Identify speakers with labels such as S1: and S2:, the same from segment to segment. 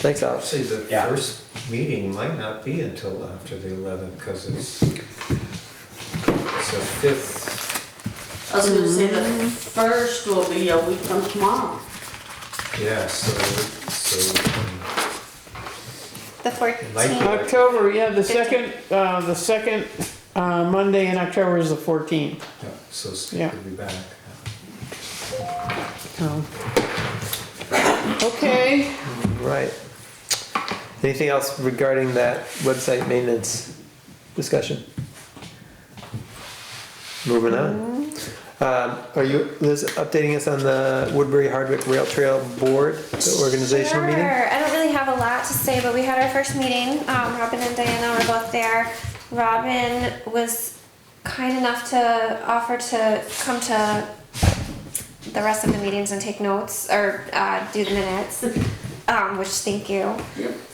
S1: Thanks, Alex.
S2: Actually, the
S3: Yeah.
S2: first meeting might not be until after the 11th because it's, it's the fifth.
S4: I was gonna say the first will be a week from tomorrow.
S2: Yeah, so, so um,
S5: The
S2: Like-
S5: 14th.
S6: October, yeah, the
S5: Fifteenth.
S6: second, uh, the second, uh, Monday in October is the fourteenth.
S2: yeah, so Steve
S6: Yeah.
S2: will be back.
S6: Okay,
S1: Right. Anything else regarding that website maintenance discussion? Moving on. Um, are you, Liz, updating us on the Woodbury Hardwick Rail Trail Board, the organizational meeting?
S5: Sure. I don't really have a lot to say, but we had our first meeting. Um, Robin and Diana were both there. Robin was kind enough to offer to come to the rest of the meetings and take notes or uh, do the minutes, um, which thank you.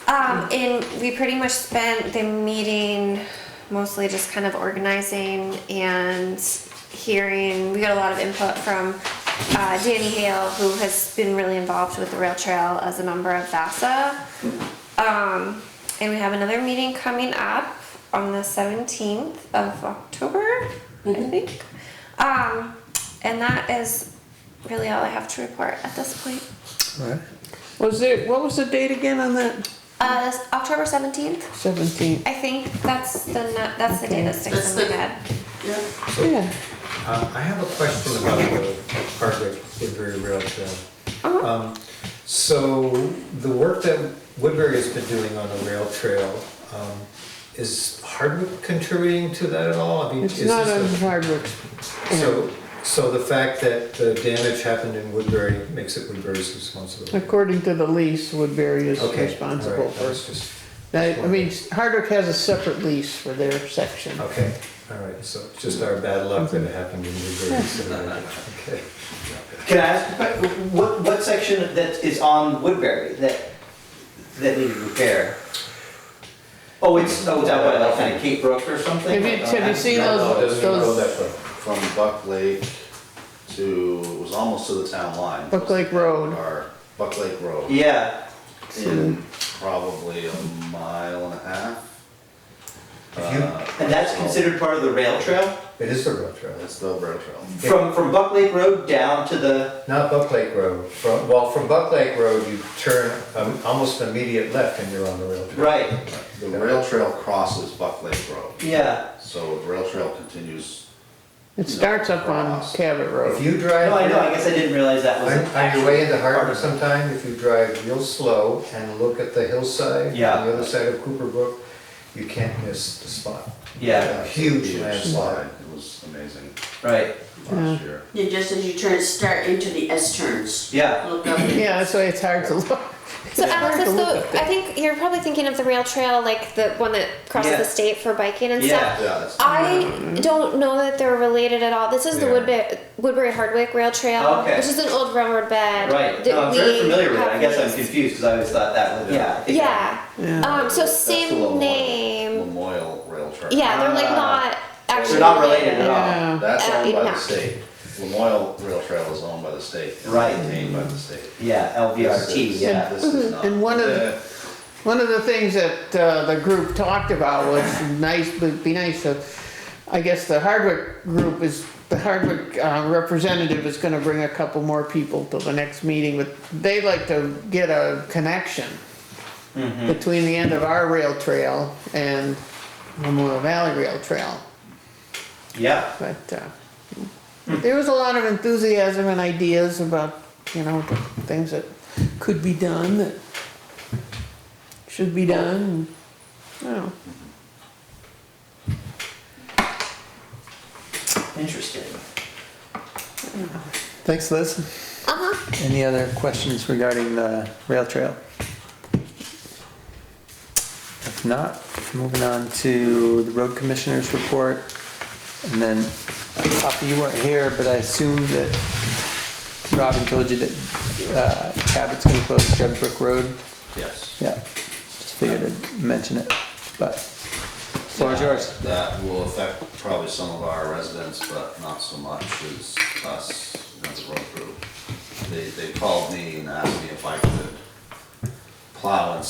S5: Um, and we pretty much spent the meeting mostly just kind of organizing and hearing. We got a lot of input from uh, Danny Hale, who has been really involved with the rail trail as a member of VASA. Um, and we have another meeting coming up on the 17th of October, I think. Um, and that is really all I have to report at this point.
S1: Alright.
S6: was it, what was the date again on that?
S5: Uh, October 17th.
S6: Seventeenth,
S5: I think that's the nu- that's the day that
S4: That's
S5: sticks in
S4: the-
S5: my head.
S4: Yeah.
S6: yeah.
S2: Uh, I have a question about the Hardwick Woodbury Rail Trail. Um, So the work that Woodbury has been doing on the rail trail, um, is Hardwick contributing to that at all? I mean,
S6: It's
S2: is
S6: not
S2: this
S6: on
S2: a-
S6: Hardwick.
S2: So, so the fact that the damage happened in Woodbury makes it Woodbury's responsibility?
S6: According to the lease, Woodbury is
S2: Okay,
S6: responsible
S2: alright, that was
S6: for.
S2: just-
S6: That, I mean, Hardwick has a separate lease for their section.
S2: Okay, all right, so it's just our bad luck that it happened in Woodbury. so, uh, okay.
S3: Can I ask, a que- what, what section that is on Woodbury that, that needed repair? Oh, it's, oh, is that what, like kind of Cape Brook or something? Uh,
S6: Have you, have you seen
S3: Oh,
S6: those, those
S7: From Buck Lake to, it was almost to the town line.
S6: Buck Lake Road?
S7: Or Buck Lake Road,
S3: Yeah,
S7: in probably a mile and a half. Uh,
S3: and that's considered part of the rail trail?
S2: It is the rail trail,
S7: That's the rail trail.
S3: From, from Buck Lake Road down to the,
S2: not Buck Lake Road. From, well, from Buck Lake Road, you turn um, almost an immediate left and you're on the rail trail.
S3: right,
S7: The rail trail crosses Buck Lake Road,
S3: yeah.
S7: so the rail trail continues.
S6: It starts up on Cabot
S2: If
S6: Road.
S2: you drive.
S3: No, I know, I guess I didn't realize that was.
S2: On
S3: an
S2: on your way into
S3: actual part
S2: Hardwick
S3: of it.
S2: sometime, if you drive real slow and look at the hillside, on
S3: Yeah.
S2: the other side of Cooper Brook, you can't miss the spot.
S3: Yeah,
S2: A huge
S7: Huge
S2: landslide.
S7: It was amazing
S3: right,
S7: last year.
S4: Yeah, just as you turn, start into the S turns.
S3: yeah.
S4: Look up.
S6: Yeah, that's why it's hard to look.
S5: So
S6: It's hard
S5: Alex,
S6: to
S5: is
S6: look up
S5: the,
S6: there.
S5: I think you're probably thinking of the rail trail, like the one that crosses
S3: Yeah.
S5: the state for biking and
S3: Yeah.
S5: stuff.
S3: Mm-hmm.
S7: Yeah, that's.
S5: I don't know that they're related at all. This is the
S2: Yeah.
S5: Woodbury, Woodbury Hardwick Rail Trail,
S3: Oh, Okay.
S5: which is an old railroad bed.
S3: Right,
S5: that
S3: no, I'm very
S5: we
S3: familiar with it, I
S5: have
S3: guess I'm
S5: leased.
S3: confused, because I always thought that was, yeah. I think-
S5: Yeah.
S6: Yeah.
S5: Um, so
S7: that's the
S5: same
S7: Lamoille-
S5: name.
S7: Lamoille Rail Trail.
S5: Yeah, they're like
S3: Ah.
S5: not actually.
S3: They're not related at all.
S6: Yeah.
S7: That's
S5: Uh,
S7: owned by
S5: yeah.
S7: the state. Lamoille Rail Trail is owned by the state. and
S3: Right.
S7: Maintained by the state.
S3: Yeah,
S7: This
S3: LVRT,
S7: is-
S3: yeah.
S7: This is not.
S6: And one of the-
S7: Yeah.
S6: One of the things that uh, the group talked about was nice, would be nice to, I guess the Hardwick group is, the Hardwick uh, representative is gonna bring a couple more people to the next meeting, but they like to get a connection between the end of our rail trail and Memorial Valley Rail Trail,
S3: Yeah.
S6: but uh, there was a lot of enthusiasm and ideas about, you know, the things that could be done, that should be done, and, I don't know.
S3: Interesting.
S1: Thanks, Liz.
S5: Uh-huh.
S1: Any other questions regarding the rail trail? If not, moving on to the road commissioner's report. And then, Papa, you weren't here, but I assume that Robin told you that uh, Cabot's gonna close Jeb Brook Road.
S7: Yes.
S1: Yeah, just figured I'd mention it, but floor's
S7: Yeah,
S1: yours.
S7: That will affect probably some of our residents, but not so much as us as a road crew. They, they called me and asked me if I could plow and